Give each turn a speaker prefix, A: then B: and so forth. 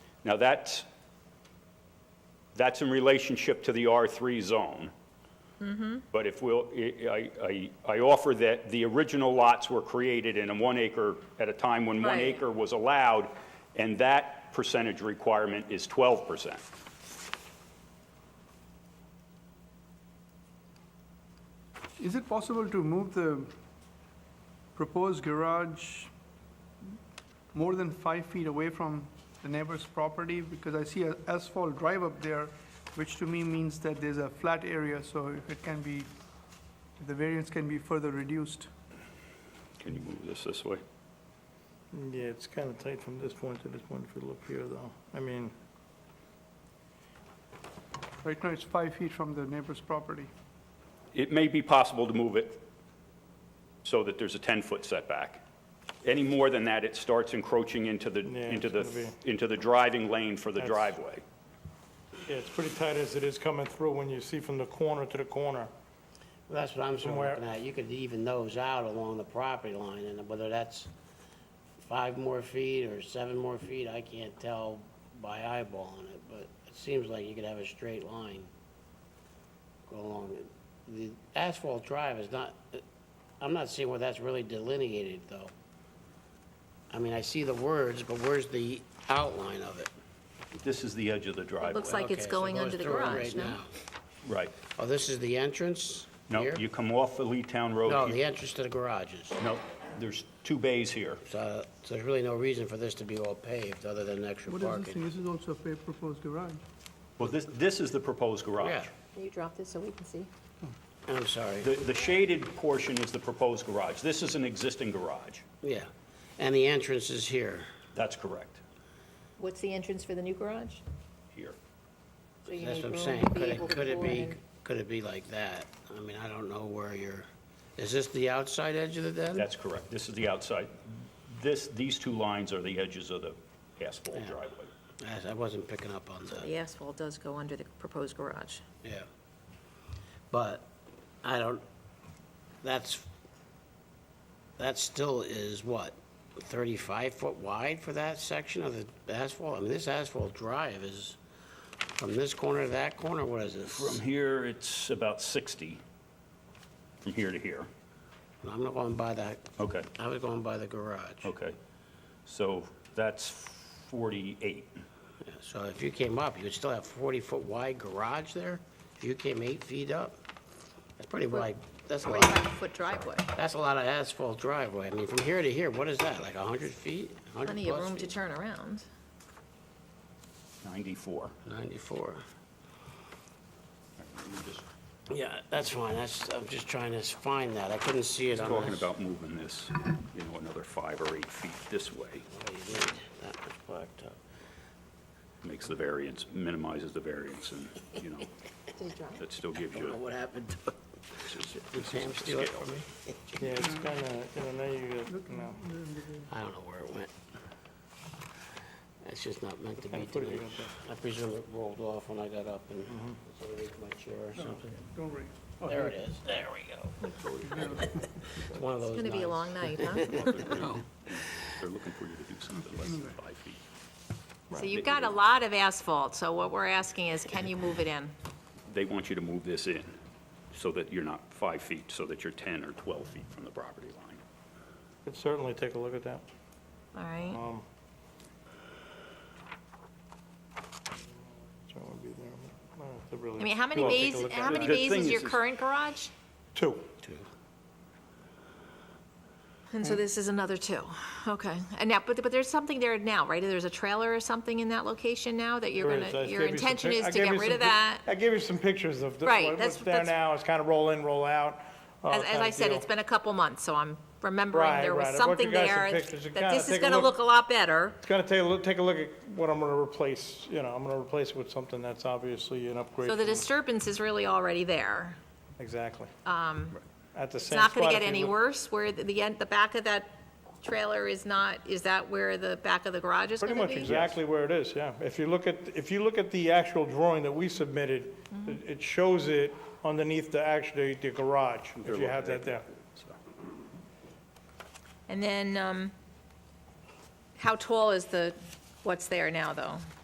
A: Now, that's, that's in relationship to the R3 zone. But if we'll, I, I, I I offer that the original lots were created in a one acre, at a time when one
B: Right.
A: acre was allowed, and that percentage requirement is 12%.
C: Is it possible to move the proposed garage more than five feet away from the neighbor's property? Because I see an asphalt drive up there, which to me means that there's a flat area, so if it can be, if the variance can be further reduced.
A: Can you move this this way?
D: Yeah, it's kind of tight from this point to this point if you look here, though. I mean,
C: Right now, it's five feet from the neighbor's property.
A: It may be possible to move it so that there's a 10-foot setback. Any more than that, it starts encroaching into the,
D: Yeah,
A: into
D: it's
A: the,
D: gonna
A: into the driving lane for the
D: That's-
A: driveway.
D: yeah, it's pretty tight as it is coming through when you see from the corner to the corner.
E: Well, That's what I'm sort of
D: Somewhere-
E: looking at. You could even those out along the property line, and whether that's five more feet or seven more feet, I can't tell by eyeballing it, but it seems like you could have a straight line go along it. The asphalt drive is not, I'm not seeing where that's really delineated, though. I mean, I see the words, but where's the outline of it?
A: This is the edge of the driveway.
B: looks like it's
E: Okay, so it
B: going
E: goes
B: under the
E: through it
B: garage,
E: right
B: no?
E: now.
A: Right.
E: Oh, this is the entrance
A: No,
E: here?
A: you come off the Lee Town Road.
E: No,
A: you-
E: the entrance to the garages.
A: No, there's two bays here.
E: So so uh, there's really no reason for this to be all paved, other than extra
C: What is this thing?
E: parking.
C: This is also a pa- proposed garage.
A: Well, this, this is the proposed
E: Yeah,
A: garage.
B: Can you drop this so we can see?
E: I'm sorry,
A: The, the shaded portion is the proposed garage. This is an existing garage.
E: yeah. And the entrance is here.
A: That's correct,
B: What's the entrance for the new garage?
A: here.
B: So you
E: That's
B: need
E: what I'm
B: room
E: saying.
B: to be
E: Could
B: able
E: it,
B: to
E: could it
B: pour
E: be,
B: in.
E: could it be like that? I mean, I don't know where you're, is this the outside edge of the den?
A: That's correct. This is the outside. This, these two lines are the edges of the asphalt
E: Yeah.
A: driveway.
E: I- I wasn't picking up on that,
B: The asphalt does go under the proposed garage.
E: yeah. But I don't, that's, that still is what, 35 foot wide for that section of the asphalt? I mean, this asphalt drive is from this corner to that corner, what is this?
A: From here, it's about 60, from here to here.
E: I'm not going by that,
A: Okay,
E: I was going by the garage.
A: Oh. okay. So that's 48.
E: Yeah, So if you came up, you would still have 40-foot wide garage there? If you came eight feet up? That's pretty wide, that's a
B: Probably
E: lot,
B: like a foot driveway.
E: that's a lot of asphalt driveway. I mean, from here to here, what is that, like 100 feet? 100
B: Plenty of
E: plus
B: room to
E: feet?
B: turn around.
A: 94.
E: 94.
A: Let me just-
E: Yeah, that's fine, that's, I'm just trying to find that, I couldn't see it on this.
A: Talking about moving this, you know, another five or eight feet this way
E: Oh, you did. That was blacked up.
A: makes the variance, minimizes the variance and, you know, that still gives
E: Don't
A: you.
E: know what happened to it. Did Sam steal it
A: scale.
E: from me?
D: Yeah, it's kind of, you know, now you, got, you know,
E: I don't know where it went. That's just not meant to be
D: Kinda put it
E: tonight.
D: up
E: I presume it rolled off when I got up and underneath my chair or something.
C: Don't worry.
E: There it is, there we go. It's one of
B: It's
E: those
B: gonna be a
E: nights.
B: long night, huh?
A: They're looking for you to do something less than five feet.
B: So you've got a lot of asphalt, so what we're asking is, can you move it in?
A: They want you to move this in so that you're not five feet, so that you're 10 or 12 feet from the property line.
D: could certainly take a look at that.
B: All right?
D: Um, so it would be there, but I don't have to really-
B: I mean, how many
D: Well, take a
B: bays,
D: look at
B: how
D: it.
B: many
A: The
B: bays
A: thing
B: is
A: is-
B: your
A: is-
B: current garage?
D: Two.
B: And so this is another two. Okay. And now, but, but there's something there now, right? There's a trailer or something in that location now that you're
D: There is. I
B: gonna, your
D: gave you some
B: intention
D: pic-
B: is
D: I
B: to
D: gave
B: get
D: you
B: rid
D: some
B: of
D: pic-
B: that?
D: I gave you some pictures of the-
B: Right,
D: what-
B: that's-
D: what's there
B: that's-
D: now, it's kind of roll in, roll out. uh,
B: As, as
D: kinda
B: I said,
D: deal.
B: it's been a couple months, so I'm remembering
D: Right,
B: there was
D: right. I brought you
B: something
D: guys some
B: there
D: pictures. You
B: that
D: gotta
B: this is
D: take a
B: gonna
D: look.
B: look a lot better.
D: It's gonna take a look, take a look at what I'm gonna replace, you know, I'm gonna replace it with something that's obviously an upgrade.
B: So the
D: from-
B: disturbance is really already there.
D: Exactly. At the
B: Um, It's
D: same
B: not
D: spot.
B: gonna get
D: if you
B: any
D: look-
B: worse where the- the end, the back of that trailer is not, is that where the back of the garage is
D: Pretty
B: gonna
D: much
B: be?
D: exactly where it is, yeah. If you look at, if you look at the actual drawing that we submitted,
B: Mm-hmm.
D: it- it shows it underneath the, actually, the garage, if you have that there.
B: And then, um, how tall is the, what's there now, though?